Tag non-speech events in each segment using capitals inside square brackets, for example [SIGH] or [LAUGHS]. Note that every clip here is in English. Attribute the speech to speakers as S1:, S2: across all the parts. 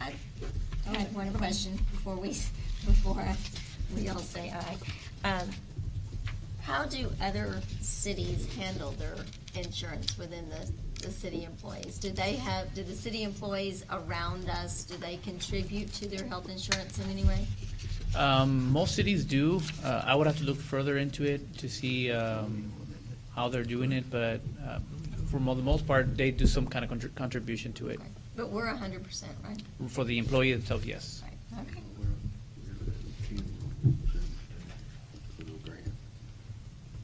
S1: I I have one question before we, [LAUGHS] before we all say aye. Um, How do other cities handle their insurance within the, the city employees? Do they have, do the city employees around us, do they contribute to their health insurance in any way?
S2: Um, most cities do. Uh, I would have to look further into it to see um, how they're doing it, but uh, for mo- the most part, they do some kind of contr- contribution to it.
S1: But we're a hundred percent, right?
S2: For the employee itself, yes.
S1: Right, okay.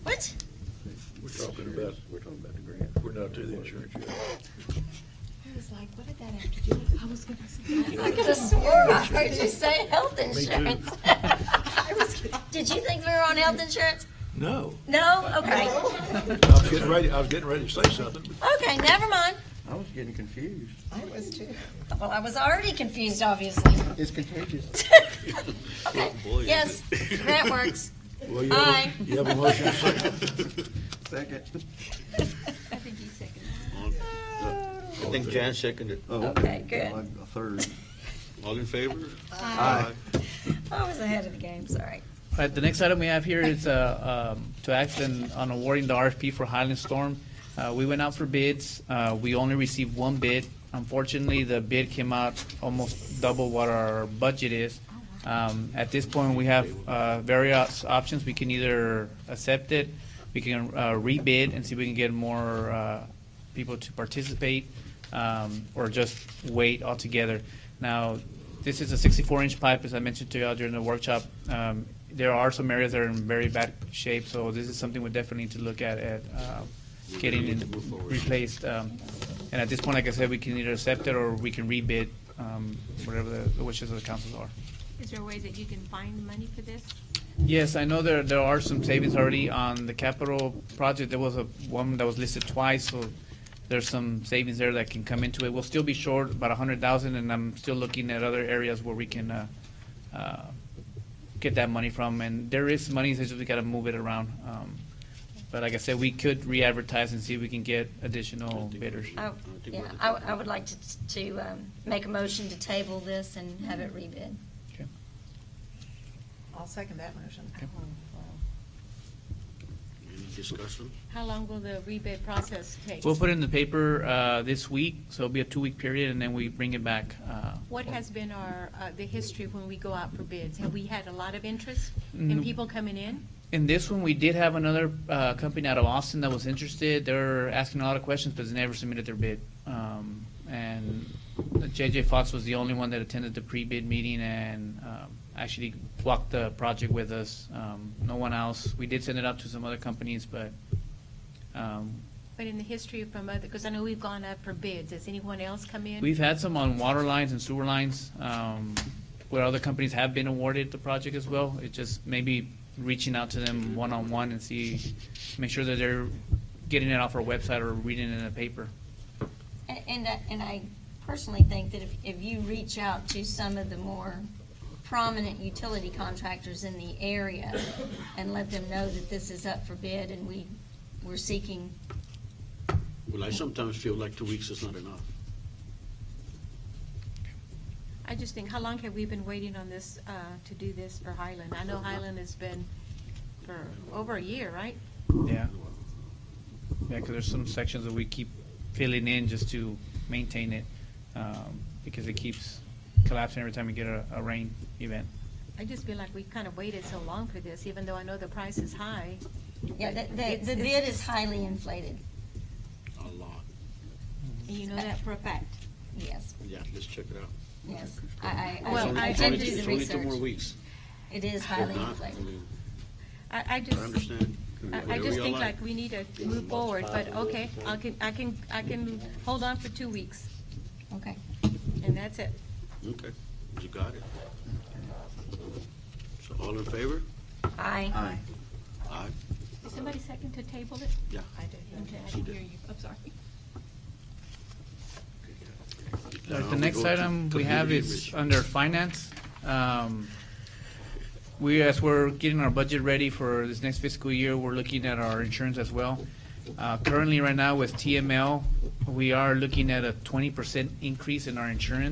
S1: What?
S3: We're talking about, we're talking about the grant. We're not to the insurance yet.
S4: I was like, what did that have to do with, I was gonna say.
S1: I could have swore I heard you say health insurance. [LAUGHS] Did you think we were on health insurance?
S3: No,
S1: No? Okay.
S3: I was getting ready, I was getting ready to say something, but
S1: Okay, never mind.
S5: I was getting confused.
S4: I was too.
S1: Well, I was already confused, obviously.
S5: It's contagious.
S1: [LAUGHS] Okay,
S3: Oh, boy, is
S1: yes, that works.
S3: Well, you have,
S1: Aye.
S3: a- you have a motion and a second.
S5: Second.
S1: I think you seconded.
S5: I think Jan seconded.
S1: Okay, good.
S5: Oh, A third.
S6: All in favor?
S5: Aye.
S1: [LAUGHS] I was ahead of the game, sorry.
S2: All right, the next item we have here is uh, um, to act on on awarding the RFP for Highland Storm. Uh, We went out for bids. Uh, We only received one bid. Unfortunately, the bid came out almost double what our budget is. Um, At this point, we have uh, various options. We can either accept it, we can uh, rebid and see if we can get more uh, people to participate um, or just wait altogether. Now, this is a 64 inch pipe, as I mentioned to y'all during the workshop. Um, there are some areas that are in very bad shape, so this is something we definitely need to look at at uh, getting it replaced. Um, and at this point, like I said, we can either accept it or we can rebid um, whatever the, the wishes of the councils are.
S7: Is there a way that you can find money for this?
S2: Yes, I know there, there are some savings already on the capital project. There was a one that was listed twice, so there's some savings there that can come into it. We'll still be short about a hundred thousand, and I'm still looking at other areas where we can, uh, uh, get that money from. And there is money, so we gotta move it around. Um, but like I said, we could re-advertise and see if we can get additional bidders.
S1: I- Yeah, I, I would like to, to um, make a motion to table this and have it rebid.
S2: Okay.
S4: I'll second that motion.
S6: Any discussion?
S7: How long will the rebid process take?
S2: We'll put it in the paper, uh, this week, so it'll be a two-week period, and then we bring it back, uh.
S7: What has been our, uh, the history when we go out for bids? Have we had a lot of interest
S2: Mm.
S7: in people coming in?
S2: In this one, we did have another uh, company out of Austin that was interested. They were asking a lot of questions, but they never submitted their bid. Um, and JJ Fox was the only one that attended the pre-bid meeting and um, actually walked the project with us. Um, no one else. We did send it out to some other companies, but um,
S7: But in the history from other, because I know we've gone out for bids, has anyone else come in?
S2: we've had some on water lines and sewer lines um, where other companies have been awarded the project as well. It just maybe reaching out to them one-on-one and see, make sure that they're getting it off our website or reading it in the paper.
S1: And, and I- and I personally think that if, if you reach out to some of the more prominent utility contractors in the area and let them know that this is up for bid and we, we're seeking,
S6: Well, I sometimes feel like two weeks is not enough.
S7: I just think, how long have we been waiting on this, uh, to do this for Highland? I know Highland has been for over a year, right?
S2: Yeah. Yeah, because there's some sections that we keep filling in just to maintain it um, because it keeps collapsing every time we get a, a rain event.
S7: I just feel like we've kind of waited so long for this, even though I know the price is high.
S1: yeah, the,
S7: It's-
S1: the, the
S7: it's-
S1: bid is highly inflated,
S6: A lot.
S7: And you know that for a fact.
S1: yes,
S6: Yeah, let's check it out.
S1: yes. I, I,
S7: Well,
S1: I- I
S7: I-
S6: It's
S1: did
S6: only-
S1: do the
S6: It's only two more
S1: research.
S6: weeks.
S1: It is
S6: If
S1: highly
S6: not, I
S1: inflated.
S6: mean,
S7: I, I
S6: I
S7: just.
S6: understand.
S7: I, I
S6: Whatever
S7: just
S6: y'all
S7: think like we need to move forward, but okay, I can, I can, I can hold on for two weeks,
S1: Okay.
S7: and that's it.
S6: Okay, you got it. So all in favor?
S1: Aye.
S5: Aye.
S6: Aye.
S7: Did somebody second to table it?
S6: Yeah.
S4: I did.
S7: Okay, I
S6: She
S7: didn't
S6: did.
S7: hear you, I'm sorry.
S2: All right,
S6: Now
S2: The
S6: we
S2: next
S6: go to
S2: item we have
S6: community
S2: is
S6: enrichment.
S2: under finance. Um, We, as we're getting our budget ready for this next fiscal year, we're looking at our insurance as well. Uh, Currently, right now with TML, we are looking at a twenty percent increase in our insurance.